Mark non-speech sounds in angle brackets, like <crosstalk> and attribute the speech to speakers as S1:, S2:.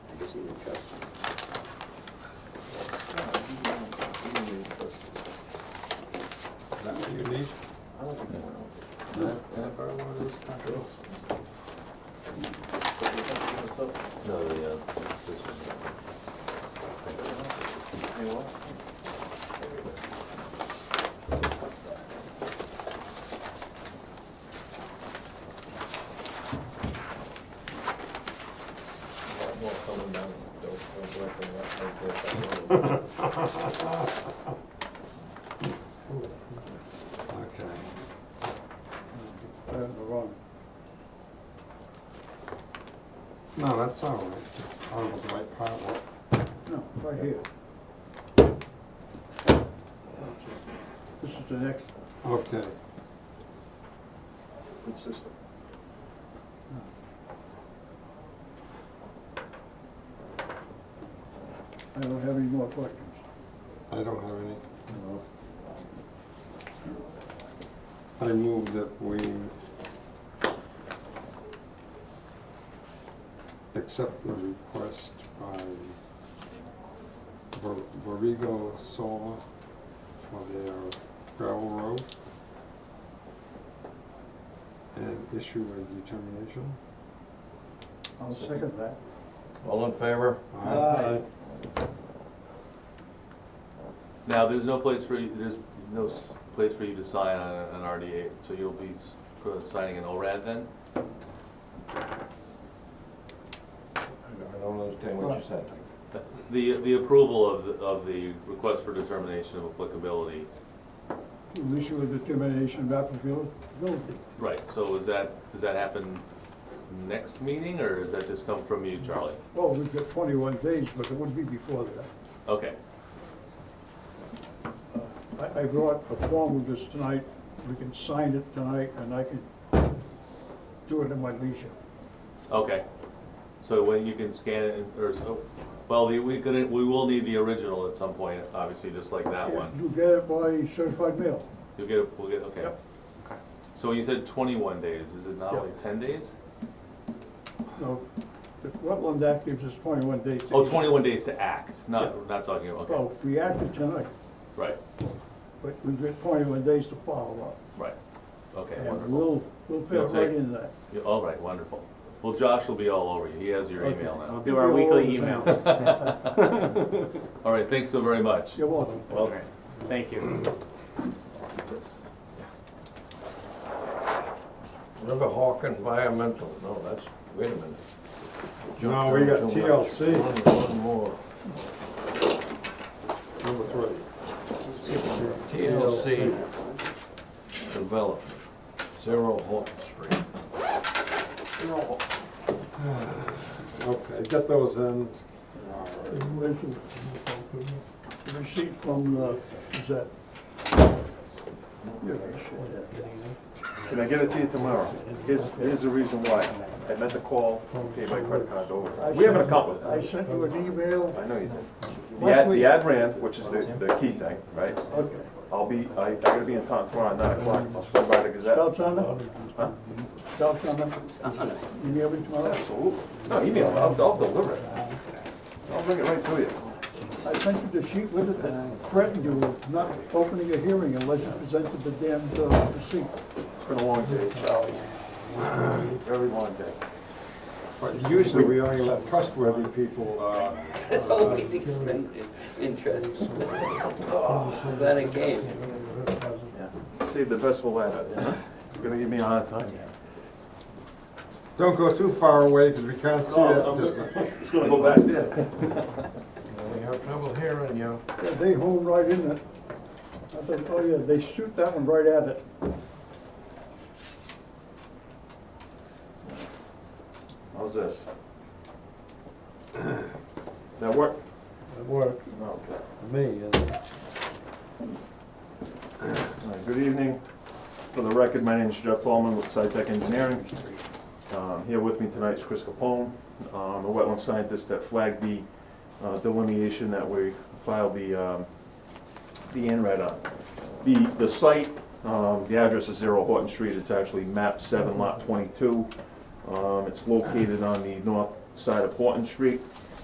S1: them down, don't, don't go up on that, don't go up that road.
S2: Okay,
S3: Down the wrong.
S2: no, that's all right, I was the right part, what,
S3: No, right here. This is the next,
S2: okay,
S1: Good system.
S3: I don't have any more questions.
S2: I don't have any. I move that we accept the request by Bor- Borrego Solar for their gravel road and issue a determination.
S3: I'll second that.
S4: All in favor?
S2: Aye.
S5: Now, there's no place for you, there's no s- place for you to sign on a- an RDA, so you'll be s- for signing an ORAD then?
S1: I don't understand what you said.
S5: <laughs> The, the approval of, the- of the request for determination of applicability,
S3: We'll issue a determination of applicability.
S5: right, so is that, does that happen next meeting, or does that just come from you, Charlie?
S3: Well, we've got twenty-one days, but it would be before that.
S5: Okay,
S3: I, I brought a form of this tonight, we can sign it tonight, and I can do it in my leisure.
S5: okay. So when you can scan it, and- or, so- well, the- we could, we will need the original at some point, obviously, just like that one.
S3: You get it by certified mail.
S5: You'll get it, we'll get, okay.
S3: Yep.
S5: So you said twenty-one days, is it not
S3: Yep.
S5: like ten days?
S3: No, the Wetland Act gives us twenty-one days. to
S5: Oh,
S3: issue.
S5: 21 days to act,
S3: Yeah.
S5: not, not talking about, okay,
S3: Well, we acted tonight,
S5: right,
S3: but we've got twenty-one days to follow up.
S5: right, okay,
S3: And
S5: wonderful.
S3: we'll, we'll fit
S5: You'll
S3: right
S5: take-
S3: in that.
S5: Yeah, All right, wonderful. Well, Josh will be all over you, he has your
S3: Okay.
S5: email
S6: We'll
S5: now.
S6: do our weekly
S3: You'll always
S6: emails.
S5: All right, thanks so very much.
S3: <laughs> You're welcome.
S6: All right. Thank you.
S1: Riverhawk Environmental, no, that's, wait a minute.
S2: No, we got
S1: Jumped around too
S2: TLC,
S1: much. One one more.
S2: number three.
S1: TLC Development, Zero Horton Street.
S2: Okay, get those in. All right.
S3: With the receipt from uh, the Gazette. Yeah, I should have.
S7: Can I get it to you tomorrow? Here's, here's the reason why. I meant to call, pay my credit card over. We haven't accomplished
S3: I
S7: it.
S3: sent you an email
S7: I know you did. The
S3: Last
S7: ad,
S3: week-
S7: the ad ran, which is the, the key thing, right?
S3: Okay.
S7: I'll be, I, I gotta be in town tomorrow at nine o'clock. I'll swing by the Gazette.
S3: Stop sign up? Stop sign up? Email me tomorrow?
S7: Absolutely. No, email, it. I'll, I'll deliver it. I'll bring it right to you.
S3: I sent you the sheet with it that threatened you with not opening a hearing unless you presented the damned uh, receipt.
S7: It's been a long day, Charlie. Very long day.
S2: But usually we only let trustworthy people, uh,
S8: This whole meeting's been in- interesting. Glad I came.
S7: Save the best for last. You're gonna give me a hard time.
S2: don't go too far away because we can't see that distance.
S7: It's gonna go back there.
S1: We have trouble hearing you.
S3: Yeah, They hold right in it. I think, oh yeah, they shoot that one right at it.
S7: How's this? That work?
S9: It worked
S7: Okay.
S9: for me, and
S7: All right, Good evening. For the record, my name is Jeff Tallman with SciTech Engineering. Um, Here with me tonight is Chris Capone, um, a wetland scientist that flagged the uh, delineation that we filed the, um, the INRAD on. The, the site, um, the address is Zero Horton Street, it's actually map seven lot twenty-two. Um, It's located on the north side of Horton Street.